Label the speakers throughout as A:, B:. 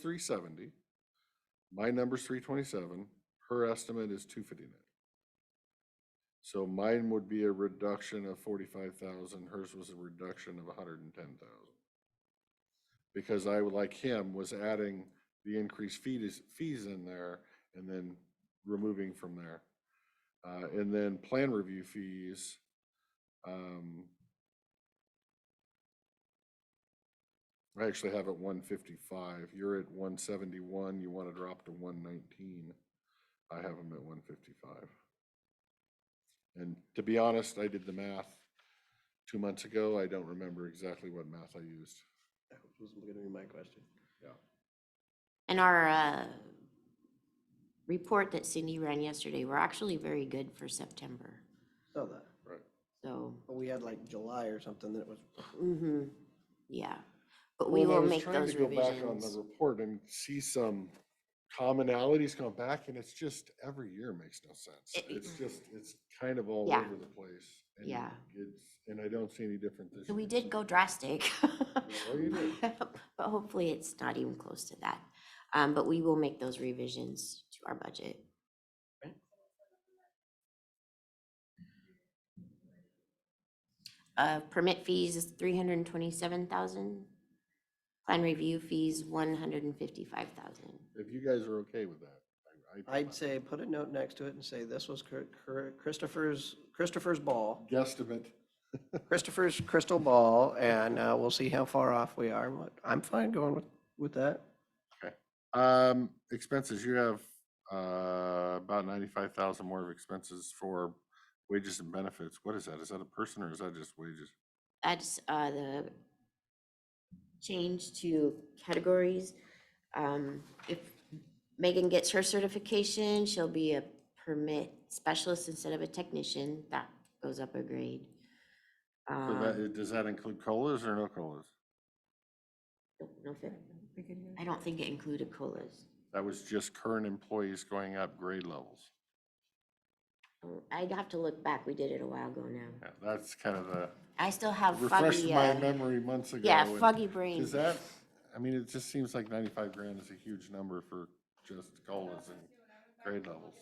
A: three seventy. My number's three twenty-seven, her estimate is two fifty-nine. So mine would be a reduction of forty-five thousand, hers was a reduction of hundred and ten thousand. Because I, like him, was adding the increased fees, fees in there and then removing from there. Uh, and then plan review fees. Um, I actually have it one fifty-five. You're at one seventy-one. You want to drop to one nineteen. I have them at one fifty-five. And to be honest, I did the math two months ago. I don't remember exactly what math I used.
B: That was gonna be my question.
C: And our uh, report that Cindy ran yesterday, we're actually very good for September.
B: Saw that.
C: So,
B: But we had like July or something that was,
C: hmm yeah. But we
A: Mm-hmm. Well, and I
C: will
A: was
C: make
A: trying
C: those
A: to go back On the
C: revisions.
A: report and see some commonalities come back and it's just every year makes no sense.
C: It- it-
A: It's just, it's kind of all
C: Yeah.
A: over the place. and
C: Yeah.
A: It's, and I don't see any different this
C: So
A: year.
C: we did go drastic.
A: Well, you did.
C: But hopefully it's not even close to that. Um, But we will make those revisions to our budget.
B: Okay.
C: Uh, Permit fees is three hundred and twenty-seven thousand. Plan review fees, one hundred and fifty-five thousand.
A: If you guys are okay with that. I- I-
B: I'd say, put a note next to it and say, this was Chr- Chr- Christopher's, Christopher's ball,
A: Guesstimate.
B: Christopher's crystal ball, and uh, we'll see how far off we are. I'm fine going with, with that.
A: Um, expenses, you have, uh, about ninety-five thousand more of expenses for wages and benefits. What is that? Is that a person or is that just wages?
C: That's uh, the change to categories. Um, If Megan gets her certification, she'll be a permit specialist instead of a technician. That goes up a grade.
A: So
C: Um,
A: that, does that include colas or no colas?
C: don't know if it- I don't think it included COLAs.
A: That was just current employees going up grade levels.
C: Oh, I'd have to look back. We did it a while ago now.
A: Yeah, That's kind of the,
C: I still have
A: refreshed
C: foggy,
A: my
C: uh,
A: memory months ago.
C: yeah,
A: and-
C: foggy brain.
A: Is that, I mean, it just seems like ninety-five grand is a huge number for just colas and grade levels.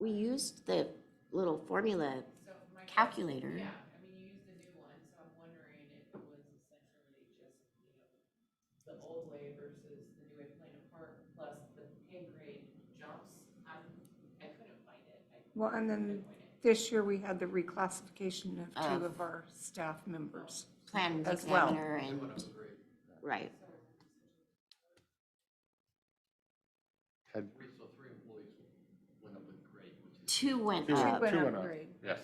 C: We used the little formula calculator.
D: Yeah, I mean, you used the new one, so I'm wondering if it was essentially just, you know, the old way versus the new way of playing a part, plus the pay grade jumps. I'm, I couldn't find it. I
E: Well, and then
D: couldn't find it.
E: this year we had the reclassification of two of
C: Of-
E: our staff members.
C: plan
E: As well.
C: examiner and, right.
A: Had,
C: Two went
A: Two went
C: up,
A: up.
E: Went
A: two
E: up
A: and up.
E: grade.
A: yes,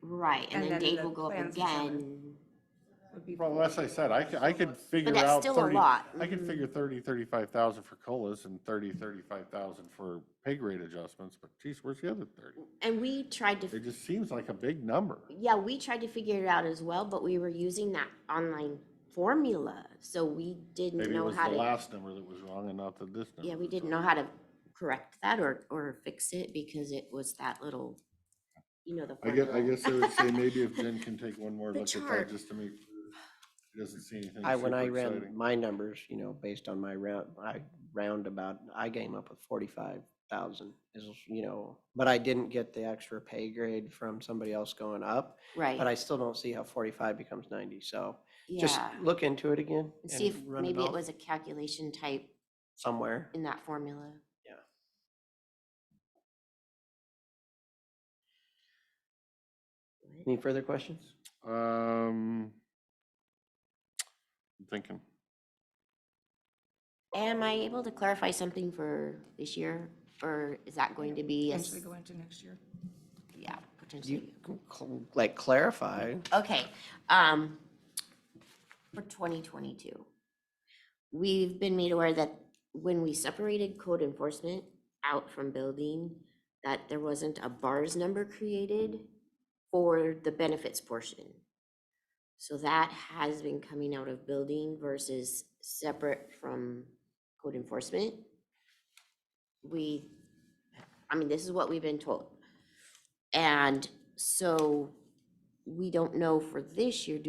C: right, and
E: And
C: then
E: then
C: Dave
E: the
C: will go up
E: plans examiner.
C: again.
E: Would be
A: well, as I said, I could, I could figure
C: that's
A: out
C: still a
A: thirty,
C: lot.
A: I could
C: Mhm.
A: figure thirty, thirty-five thousand for colas and thirty, thirty-five thousand for pay grade adjustments, but geez, where's the other thirty?
C: And we tried to,
A: It just seems like a big number.
C: yeah, we tried to figure it out as well, but we were using that online formula, so we didn't
A: Maybe it
C: know
A: was
C: how
A: the
C: to.
A: last number that was wrong and not the this number.
C: Yeah, we didn't know how to correct that or, or fix it because it was that little, you know, the
A: I guess,
C: formula.
A: I guess I would say maybe if Jen can take one more
C: The
A: look at
C: chart.
A: that, just to make, sure she doesn't see anything
B: I, when
A: super
B: I ran
A: exciting.
B: my numbers, you know, based on my round, I roundabout, I came up with forty-five thousand is, you know, but I didn't get the extra pay grade from somebody else going up, but
C: Right,
B: I still don't see how forty-five becomes ninety, so just
C: yeah.
B: look into it again.
C: And See if
B: and run
C: maybe it
B: off
C: was a calculation type
B: Somewhere.
C: in that formula.
B: Yeah.
C: What?
B: Any further questions?
A: Um, I'm thinking,
C: Am I able to clarify something for this year, or is that going to be, a s-
E: Potentially go into next year.
C: yeah,
B: You,
C: potentially?
B: can cl- like, clarify.
C: Okay, um, for twenty twenty-two. We've been made aware that when we separated code enforcement out from building, that there wasn't a bars number created for the benefits portion. So that has been coming out of building versus separate from code enforcement. We, I mean, this is what we've been told. And so we don't know for this year, do